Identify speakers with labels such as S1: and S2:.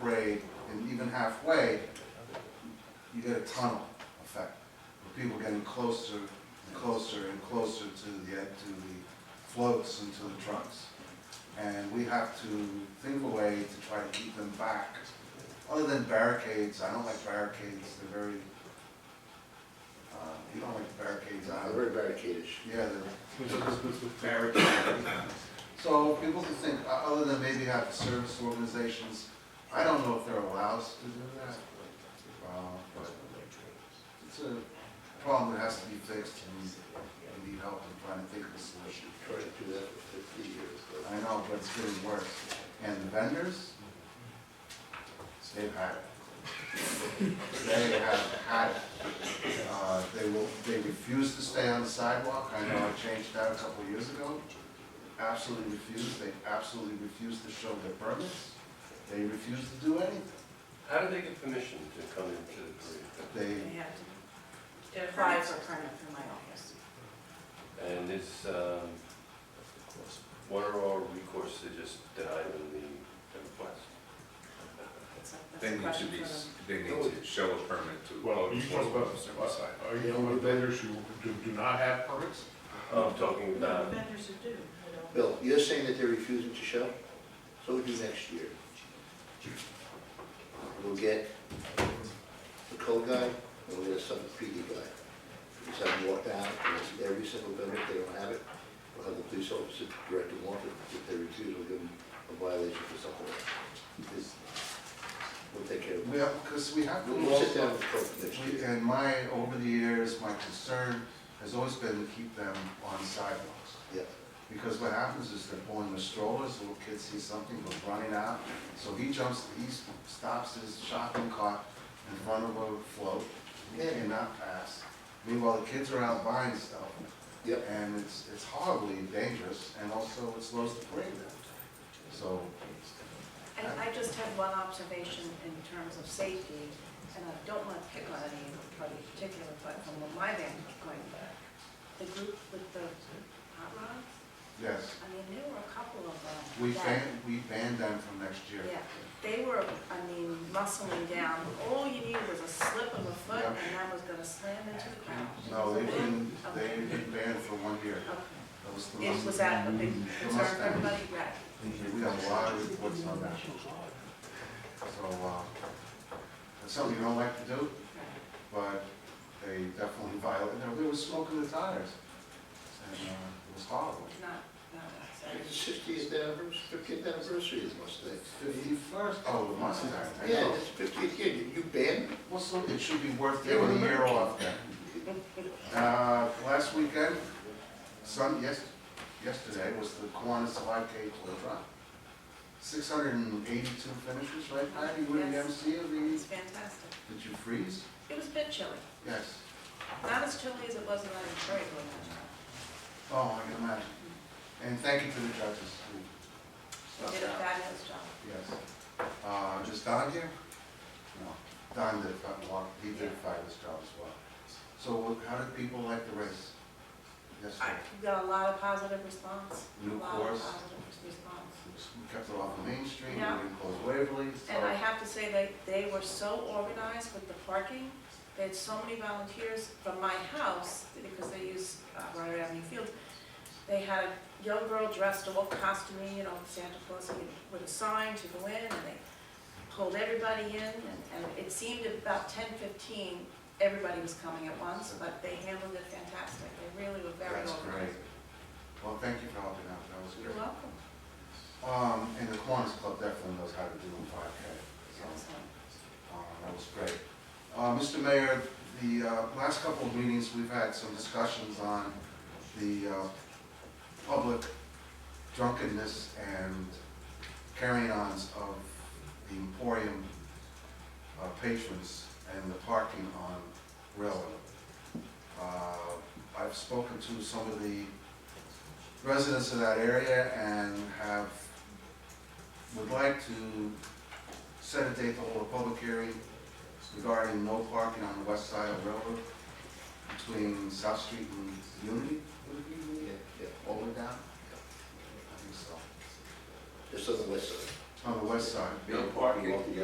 S1: grade and even halfway, you get a tunnel effect, with people getting closer and closer and closer to the, ed- to the floats and to the trucks. And we have to think of a way to try to keep them back, other than barricades, I don't like barricades, they're very, uh, you don't like barricades
S2: Uh,
S1: either.
S2: Very barricadish.
S1: Yeah, the. So people can think, uh, other than maybe have service organizations, I don't know if they're allowed to do that. Uh, but It's a problem that has to be fixed and we need help in trying to think of a solution.
S2: Tried to do that for fifty years. but-
S1: I know, but it's getting worse. And the vendors, they've had it. They have had it. Uh, They will, they refuse to stay on the sidewalk. I know I changed that a couple years ago. Absolutely refuse. They absolutely refuse to show their permits. They refuse to do anything.
S3: How do they get permission to come into the parade?
S1: They,
S4: They have to apply for a permit through my office.
S3: And is, um, what are our recourse to just denying the request?
S4: That's a- that's a
S5: They need to
S4: question
S5: be,
S4: for
S5: s-
S4: them.
S5: they need to show a permit to.
S6: Well, you talk about,
S5: Certain side.
S6: are you talking about vendors who do, do not have permits?
S3: Oh, I'm talking
S4: No,
S3: about,
S4: vendors who do, they don't.
S2: Bill, you're saying that they're refusing to show? So we'll do next year. We'll get the code guy, and we'll get a sub PD guy. Just have them walk down, and we'll see every single vendor, if they don't have it, we'll have the police officer direct them off, If- if they refuse, we'll give them a violation for something. This- We'll take care of
S1: we
S2: it.
S1: have, because we have to.
S2: We'll sit
S1: also-
S2: down with the code next
S1: We-
S2: year.
S1: And my, over the years, my concern has always been to keep them on sidewalks.
S2: Yeah.
S1: Because what happens is they're pulling the strollers, little kid sees something, goes running out, so he jumps, he stops his shopping cart in front of a float, he cannot pass. Meanwhile, the kids are out buying stuff,
S2: Yep.
S1: and it's, it's horribly dangerous, and also it slows the parade down. So,
S4: I, I just have one observation in terms of safety, and I don't want to pick on anybody in particular, but from my vantage point, the group with the hot rods,
S1: yes,
S4: I mean, there were a couple of them.
S1: we
S4: that-
S1: ban, we banned them from next year.
S4: Yeah, they were, I mean, muscling down, all you needed was a slip of a foot,
S1: Yeah.
S4: and that was gonna slam into the ground.
S1: No, they've been, they've been banned for one year.
S4: Okay.
S1: That was the
S4: It
S1: most-
S4: was that a big
S1: the
S4: concern
S1: most
S4: for
S1: damage.
S4: everybody, right?
S1: We have a lot of reports on that. So, uh, it's something you don't like to do,
S4: right.
S1: but they definitely violate, you know, there was smoke in the tires. And, uh, it was horrible.
S4: Not, not us. I
S2: It's fiftieth anniversary, fiftieth anniversary is Mustang.
S1: Fifty-first, oh, the Mustang, I
S2: Yeah,
S1: know.
S2: it's fiftieth year, Did you banned
S1: Well, so it should be worth giving a year off then. Uh, last weekend, Sun, yes, yesterday was the Kiwanis five K toy run. Six hundred and eighty-two finishes, right, Patty, you were the
S4: Yes.
S1: MC of
S4: mean,
S1: the,
S4: It's fantastic.
S1: did you freeze?
S4: It was a bit chilly,
S1: Yes.
S4: not as chilly as it was in Detroit when I
S1: Oh, I can imagine. And thank you to the judges who
S4: was there. They
S1: stuck
S4: did a
S1: it out.
S4: fabulous job.
S1: Yes. Uh, just Don here? No, Don did, a lot- he did a fabulous job as well. So what- how did people like the race? Yes,
S4: I
S1: sir.
S4: got a lot of positive response, a
S1: New
S4: lot of
S1: course.
S4: positive response.
S1: We kept it off the Main Street, we
S4: Yeah.
S1: didn't close Waverly, so.
S4: And I have to say, they, they were so organized with the parking. They had so many volunteers from my house, because they use uh, Rider Avenue Fields. They had a young girl dressed all costumey, you know, Santa Claus with a sign to go in, and they pulled everybody in, and and it seemed about ten fifteen, everybody was coming at once, but they handled it fantastic. They really were very
S1: That's
S4: organized.
S1: great. Well, thank you for helping out, that was
S4: You're
S1: great.
S4: welcome.
S1: Um, and the Kiwanis Club definitely knows how to do a five K, so.
S4: Excellent.
S1: Uh, That was great. Uh, Mr. Mayor, the uh, last couple of meetings, we've had some discussions on the uh, public drunkenness and carry-ons of the Emporium uh, patrons and the parking on Railroad. Uh, I've spoken to some of the residents of that area and have, would like to set a date to hold a public hearing regarding no parking on the west side of Railroad between South Street and Unity,
S2: Yeah, yeah,
S1: over down? I think so.
S2: just on the west side.
S1: On the west side.
S2: No
S3: parking.